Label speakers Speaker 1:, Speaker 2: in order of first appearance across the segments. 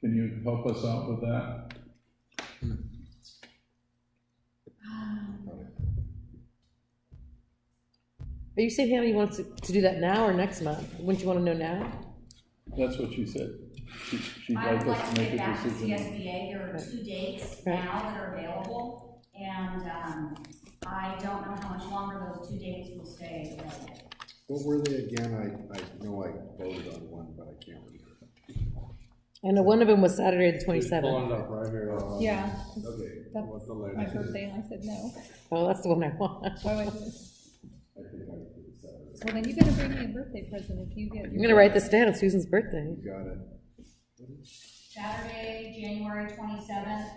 Speaker 1: Can you help us out with that?
Speaker 2: Um,
Speaker 3: Are you saying Hannah, you want us to to do that now or next month? Wouldn't you want to know now?
Speaker 1: That's what she said. She- She'd
Speaker 2: I
Speaker 1: like
Speaker 2: would
Speaker 1: us
Speaker 2: like
Speaker 1: to
Speaker 2: to
Speaker 1: make
Speaker 2: get
Speaker 1: a
Speaker 2: back to
Speaker 1: decision.
Speaker 2: CSBA, there are two dates
Speaker 3: Right.
Speaker 2: now that are available, and, um, I don't know how much longer those two dates will stay available.
Speaker 4: What were they again? I, I know I voted on one, but I can't remember.
Speaker 3: I know one of them was Saturday the
Speaker 5: Pulling
Speaker 3: 27th.
Speaker 5: it up right here.
Speaker 4: Uh,
Speaker 6: Yeah,
Speaker 4: Okay,
Speaker 6: That's
Speaker 4: what's the
Speaker 6: my
Speaker 4: latest?
Speaker 6: birthday, and I said no.
Speaker 3: Oh, that's the one I want.
Speaker 6: Why would I do this?
Speaker 4: I think I did Saturday.
Speaker 6: Well, then you gotta bring me a birthday present if you get.
Speaker 3: I'm gonna write this down, Susan's birthday.
Speaker 4: You got it.
Speaker 2: Saturday, January twenty-seventh,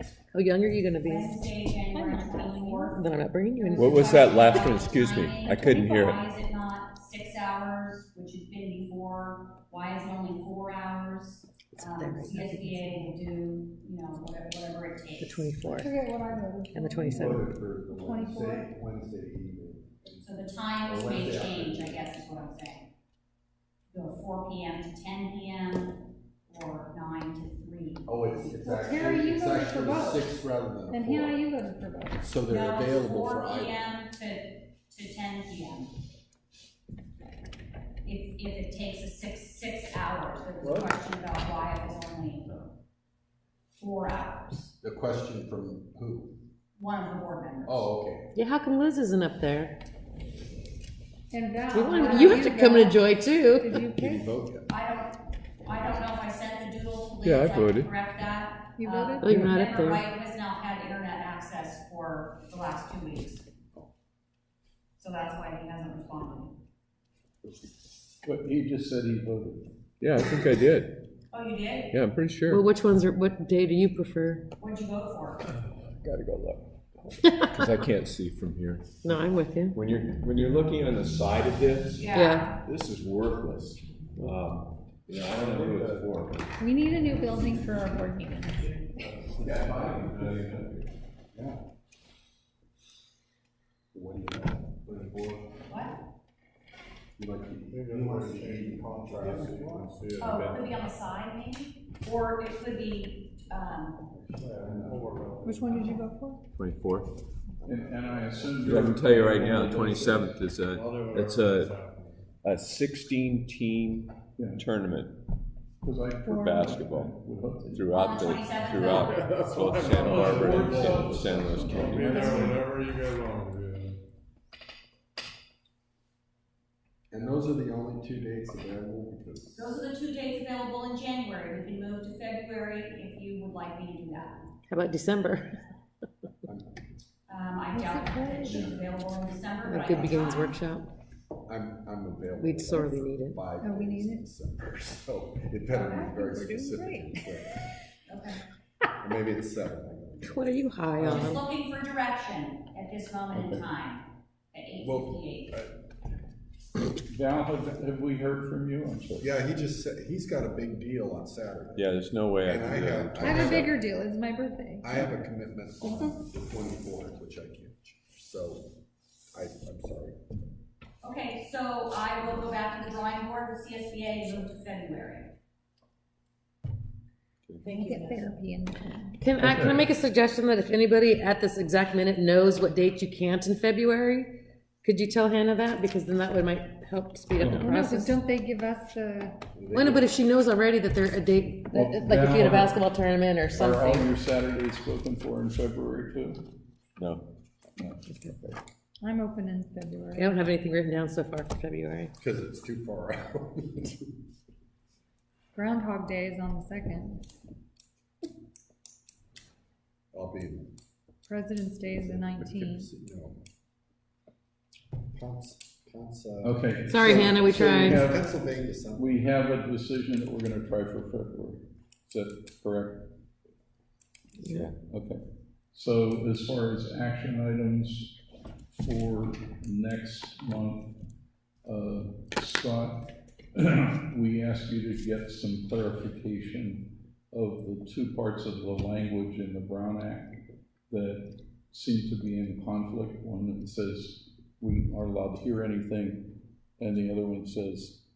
Speaker 3: How young are you gonna be?
Speaker 2: Wednesday, January twenty-fourth.
Speaker 3: Then I'm not bringing you in.
Speaker 7: What was that last one? Excuse me. I couldn't hear it.
Speaker 2: Why is it not six hours, which has been before, why is it only four hours? Um,
Speaker 3: there, right?
Speaker 2: CSBA will do, you know, whatever, whatever it
Speaker 3: The
Speaker 2: takes.
Speaker 3: 24th
Speaker 6: Forget what I voted.
Speaker 3: and the
Speaker 6: twenty.
Speaker 3: 27th.
Speaker 4: Voted for the Wednesday, Wednesday evening.
Speaker 2: So the times
Speaker 4: Or
Speaker 2: may
Speaker 4: Wednesday
Speaker 2: change, I
Speaker 4: afternoon.
Speaker 2: guess is what I'm saying. Go four P M to ten P M, or nine to three.
Speaker 4: Oh, it's, it's
Speaker 6: Well, Terry,
Speaker 4: actually,
Speaker 6: you
Speaker 4: it's
Speaker 6: voted for
Speaker 4: actually
Speaker 6: both.
Speaker 4: six rather than a four.
Speaker 6: And Hannah, you voted for both.
Speaker 4: So
Speaker 2: No, Four P M to, to ten P M. If, if it takes a six, six hours, there was a question about why it was only four hours,
Speaker 4: The question from who?
Speaker 2: one of the board members.
Speaker 4: Oh, okay.
Speaker 3: Yeah, how come Liz isn't up there?
Speaker 6: And Val.
Speaker 3: We
Speaker 6: why
Speaker 3: want,
Speaker 6: don't
Speaker 3: you have to come and
Speaker 6: vote?
Speaker 3: enjoy too.
Speaker 6: Did you
Speaker 4: Did you
Speaker 6: pick?
Speaker 4: vote yet?
Speaker 2: I don't, I don't know if I sent the doodle to Liz.
Speaker 7: Yeah, I
Speaker 2: can
Speaker 7: voted.
Speaker 2: Correct that.
Speaker 6: You
Speaker 2: Uh,
Speaker 6: voted?
Speaker 3: Oh, you're not up
Speaker 2: Member
Speaker 3: there.
Speaker 2: White has not had internet access for the last two weeks. So that's why he hasn't responded.
Speaker 1: But he just said he voted.
Speaker 7: Yeah, I think I did.
Speaker 2: Oh, you did?
Speaker 7: Yeah, I'm pretty
Speaker 3: Well,
Speaker 7: sure.
Speaker 3: which ones are, what day do you prefer?
Speaker 2: What'd you vote for?
Speaker 7: Gotta go look. Because I can't see from here.
Speaker 3: No, I'm with you.
Speaker 5: When you're, when you're looking on the side of this,
Speaker 3: Yeah.
Speaker 5: this is worthless. Um, You know, I don't know who it's for.
Speaker 6: We need a new building for our board meetings.
Speaker 4: What do you know? What do you want?
Speaker 2: What?
Speaker 4: You like the, you want the evening contrast?
Speaker 2: Oh, it could be on the side maybe, or it could be, um,
Speaker 6: Which one did you vote for?
Speaker 7: Twenty-fourth.
Speaker 1: And, and I assume
Speaker 7: I
Speaker 1: you're.
Speaker 7: can tell you right now, twenty-seventh is a, it's a, a sixteen-team
Speaker 1: Yeah.
Speaker 7: tournament
Speaker 1: Because I.
Speaker 7: for basketball
Speaker 1: would hope that you-
Speaker 7: throughout the, throughout both Santa Barbara and San- San Luis
Speaker 8: Be
Speaker 7: County.
Speaker 8: there whenever you guys want to be there.
Speaker 4: And those are the only two dates available because.
Speaker 2: those are the two dates available in January. We can move to February if you would like me to do that.
Speaker 3: How about December?
Speaker 2: Um, I doubt that she's available in December, but I
Speaker 3: A
Speaker 2: can
Speaker 3: Good Beginnings
Speaker 2: try.
Speaker 3: Workshop.
Speaker 4: I'm, I'm available.
Speaker 3: We'd sorely need it.
Speaker 4: Five
Speaker 6: Oh, we
Speaker 4: days
Speaker 6: need
Speaker 4: in
Speaker 6: it?
Speaker 4: December, so it better be very
Speaker 6: We're doing
Speaker 4: specific.
Speaker 6: great.
Speaker 2: Okay.
Speaker 4: Or maybe it's seven. I don't know.
Speaker 3: What are you high
Speaker 2: I'm just
Speaker 3: on?
Speaker 2: looking for direction at this moment in time, at eight fifty-eight.
Speaker 1: Val, have, have we heard from you? I'm sorry.
Speaker 4: Yeah, he just said, he's got a big deal on Saturday.
Speaker 7: Yeah, there's no way I
Speaker 4: And I
Speaker 7: can do
Speaker 4: have,
Speaker 7: that.
Speaker 6: I have a bigger Uh-huh. deal, it's my birthday.
Speaker 4: I have a commitment on the twenty-fourth, which I can't, so I, I'm sorry.
Speaker 2: Okay, so I will go back to the drawing board with CSBA and move to February.
Speaker 6: Make it therapy and.
Speaker 3: Can I, can I make a suggestion that if anybody at this exact minute knows what date you can't in February? Could you tell Hannah that? Because then that would might help speed up the
Speaker 6: Well, no, but
Speaker 3: process.
Speaker 6: don't they give us the,
Speaker 3: Well, no, but if she knows already that they're a date,
Speaker 1: Well,
Speaker 3: like if you had a
Speaker 1: now-
Speaker 3: basketball tournament or
Speaker 1: Are all
Speaker 3: something.
Speaker 1: your Saturdays spoken for in February too?
Speaker 7: No.
Speaker 6: I'm open in
Speaker 3: I
Speaker 6: February.
Speaker 3: don't have anything written down so far for February.
Speaker 4: Because it's too far out.
Speaker 6: Groundhog Day is on the second,
Speaker 4: I'll be.
Speaker 6: President's Day is the nineteenth.
Speaker 4: No. Pounce, Pounce, uh.
Speaker 1: Okay.
Speaker 3: Sorry,
Speaker 4: so-
Speaker 3: Hannah, we
Speaker 4: so
Speaker 3: tried.
Speaker 4: have Pennsylvania something.
Speaker 1: We have a decision that we're gonna try for February. Is that correct?
Speaker 7: Yeah.
Speaker 1: Okay. So as far as action items for next month, uh, Scott, we ask you to get some clarification of the two parts of the language in the Brown Act that seem to be in conflict. One that says we aren't allowed to hear anything, and the other one says